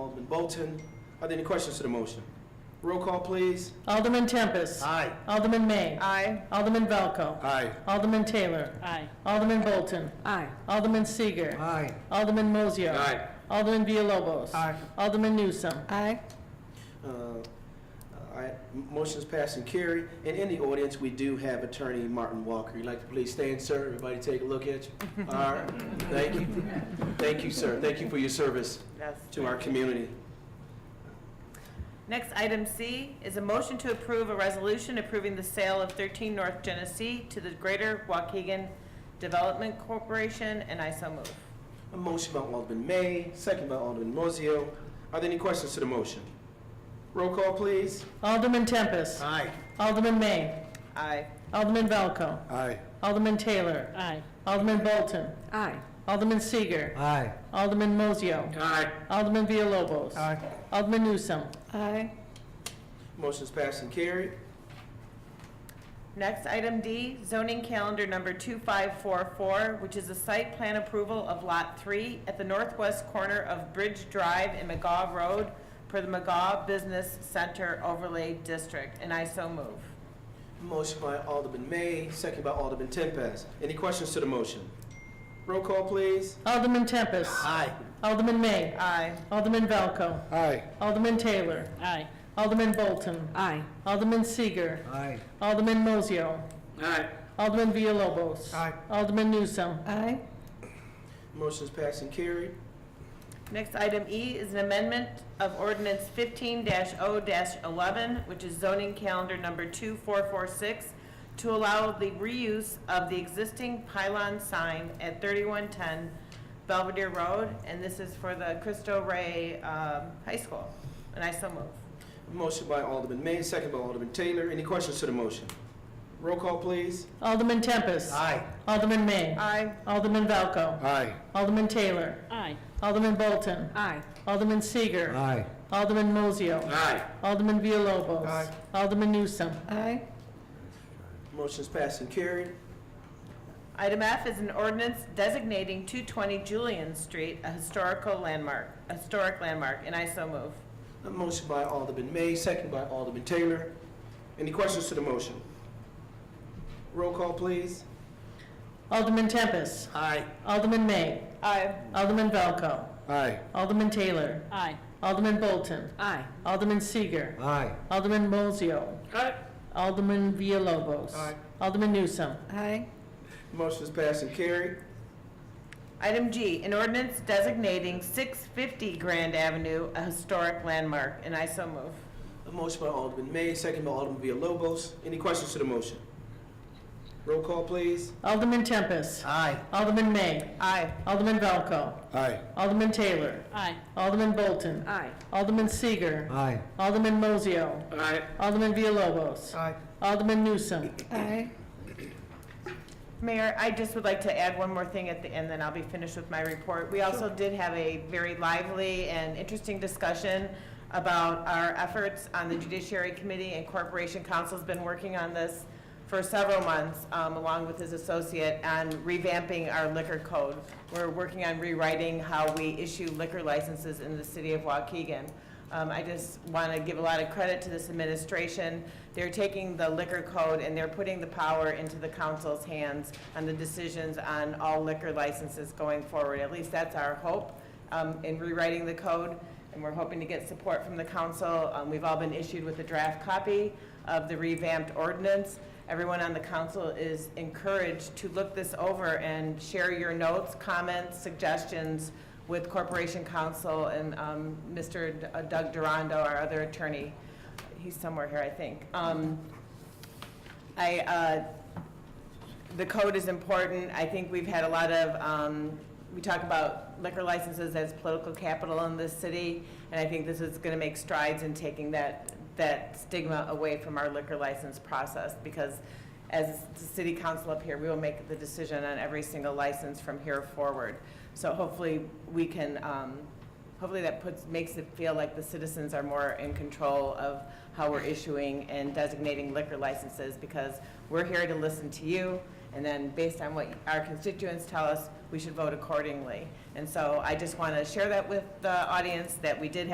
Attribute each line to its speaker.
Speaker 1: Alderman Bolton. Are there any questions to the motion? Roll call, please.
Speaker 2: Alderman Tempest.
Speaker 1: Aye.
Speaker 2: Alderman May.
Speaker 3: Aye.
Speaker 2: Alderman Valco.
Speaker 1: Aye.
Speaker 2: Alderman Taylor.
Speaker 3: Aye.
Speaker 2: Alderman Bolton.
Speaker 3: Aye.
Speaker 2: Alderman Seager.
Speaker 1: Aye.
Speaker 2: Alderman Mozio.
Speaker 1: Aye.
Speaker 2: Alderman Villalobos.
Speaker 1: Aye.
Speaker 2: Alderman Newsome.
Speaker 3: Aye.
Speaker 1: Uh, I- Motion's passed and carried. And in the audience, we do have Attorney Martin Walker. You'd like to please stand, sir? Everybody take a look at you. All right, thank you. Thank you, sir. Thank you for your service
Speaker 3: Yes.
Speaker 1: to our community.
Speaker 3: Next, item C is a motion to approve a resolution approving the sale of 13 North Genesee to the Greater Waukegan Development Corporation, and I so move.
Speaker 1: A motion by Alderman May, second by Alderman Mozio. Are there any questions to the motion? Roll call, please.
Speaker 2: Alderman Tempest.
Speaker 1: Aye.
Speaker 2: Alderman May.
Speaker 3: Aye.
Speaker 2: Alderman Valco.
Speaker 1: Aye.
Speaker 2: Alderman Taylor.
Speaker 3: Aye.
Speaker 2: Alderman Bolton.
Speaker 3: Aye.
Speaker 2: Alderman Seager.
Speaker 1: Aye.
Speaker 2: Alderman Mozio.
Speaker 1: Aye.
Speaker 2: Alderman Villalobos.
Speaker 1: Aye.
Speaker 2: Alderman Newsome.
Speaker 3: Aye.
Speaker 1: Motion's passed and carried.
Speaker 3: Next, item D, zoning calendar number 2544, which is a site plan approval of Lot 3 at the northwest corner of Bridge Drive and McGaw Road per the McGaw Business Center Overlay District, and I so move.
Speaker 1: Motion by Alderman May, second by Alderman Tempest. Any questions to the motion? Roll call, please.
Speaker 2: Alderman Tempest.
Speaker 1: Aye.
Speaker 2: Alderman May.
Speaker 3: Aye.
Speaker 2: Alderman Valco.
Speaker 1: Aye.
Speaker 2: Alderman Taylor.
Speaker 3: Aye.
Speaker 2: Alderman Bolton.
Speaker 3: Aye.
Speaker 2: Alderman Seager.
Speaker 1: Aye.
Speaker 2: Alderman Mozio.
Speaker 1: Aye.
Speaker 2: Alderman Villalobos.
Speaker 1: Aye.
Speaker 2: Alderman Newsome.
Speaker 3: Aye.
Speaker 1: Motion's passed and carried.
Speaker 3: Next, item E is an amendment of ordinance 15-0-11, which is zoning calendar number 2446, to allow the reuse of the existing pylon sign at 3110 Belvedere Road, and this is for the Cristo Rey um, High School. And I so move.
Speaker 1: Motion by Alderman May, second by Alderman Taylor. Any questions to the motion? Roll call, please.
Speaker 2: Alderman Tempest.
Speaker 1: Aye.
Speaker 2: Alderman May.
Speaker 3: Aye.
Speaker 2: Alderman Valco.
Speaker 1: Aye.
Speaker 2: Alderman Taylor.
Speaker 3: Aye.
Speaker 2: Alderman Bolton.
Speaker 3: Aye.
Speaker 2: Alderman Seager.
Speaker 1: Aye.
Speaker 2: Alderman Mozio.
Speaker 1: Aye.
Speaker 2: Alderman Villalobos.
Speaker 1: Aye.
Speaker 2: Alderman Newsome.
Speaker 3: Aye.
Speaker 1: Motion's passed and carried.
Speaker 3: Item F is an ordinance designating 220 Julian Street a historical landmark, a historic landmark, and I so move.
Speaker 1: A motion by Alderman May, second by Alderman Taylor. Any questions to the motion? Roll call, please.
Speaker 2: Alderman Tempest.
Speaker 1: Aye.
Speaker 2: Alderman May.
Speaker 3: Aye.
Speaker 2: Alderman Valco.
Speaker 1: Aye.
Speaker 2: Alderman Taylor.
Speaker 3: Aye.
Speaker 2: Alderman Bolton.
Speaker 3: Aye.
Speaker 2: Alderman Seager.
Speaker 1: Aye.
Speaker 2: Alderman Mozio.
Speaker 1: Aye.
Speaker 2: Alderman Villalobos.
Speaker 1: Aye.
Speaker 2: Alderman Newsome.
Speaker 3: Aye.
Speaker 1: Motion is passed and carried.
Speaker 3: Item G, an ordinance designating 650 Grand Avenue a historic landmark, and I so move.
Speaker 1: A motion by Alderman May, second by Alderman Villalobos. Any questions to the motion? Roll call, please.
Speaker 2: Alderman Tempest.
Speaker 1: Aye.
Speaker 2: Alderman May.
Speaker 3: Aye.
Speaker 2: Alderman Valco.
Speaker 1: Aye.
Speaker 2: Alderman Taylor.
Speaker 3: Aye.
Speaker 2: Alderman Bolton.
Speaker 3: Aye.
Speaker 2: Alderman Seager.
Speaker 1: Aye.
Speaker 2: Alderman Mozio.
Speaker 1: Aye.
Speaker 2: Alderman Villalobos.
Speaker 1: Aye.
Speaker 2: Alderman Newsome.
Speaker 3: Aye. Mayor, I just would like to add one more thing at the end, then I'll be finished with my report. We also did have a very lively and interesting discussion about our efforts on the Judiciary Committee, and Corporation Council's been working on this for several months, um, along with his associate, on revamping our liquor code. We're working on rewriting how we issue liquor licenses in the city of Waukegan. Um, I just want to give a lot of credit to this administration. They're taking the liquor code and they're putting the power into the council's hands on the decisions on all liquor licenses going forward. At least that's our hope um, in rewriting the code, and we're hoping to get support from the council. Um, We've all been issued with a draft copy of the revamped ordinance. Everyone on the council is encouraged to look this over and share your notes, comments, suggestions with Corporation Counsel and um, Mr. D- uh, Doug Durando, our other attorney. He's somewhere here, I think. Um, I, uh, the code is important. I think we've had a lot of, um, we talk about liquor licenses as political capital in this city, and I think this is going to make strides in taking that, that stigma away from our liquor license process, because as the city council up here, we will make the decision on every single license from here forward. So hopefully, we can, um, Hopefully that puts, makes it feel like the citizens are more in control of how we're issuing and designating liquor licenses because we're here to listen to you. And then based on what our constituents tell us, we should vote accordingly. And so I just want to share that with the audience that we did have.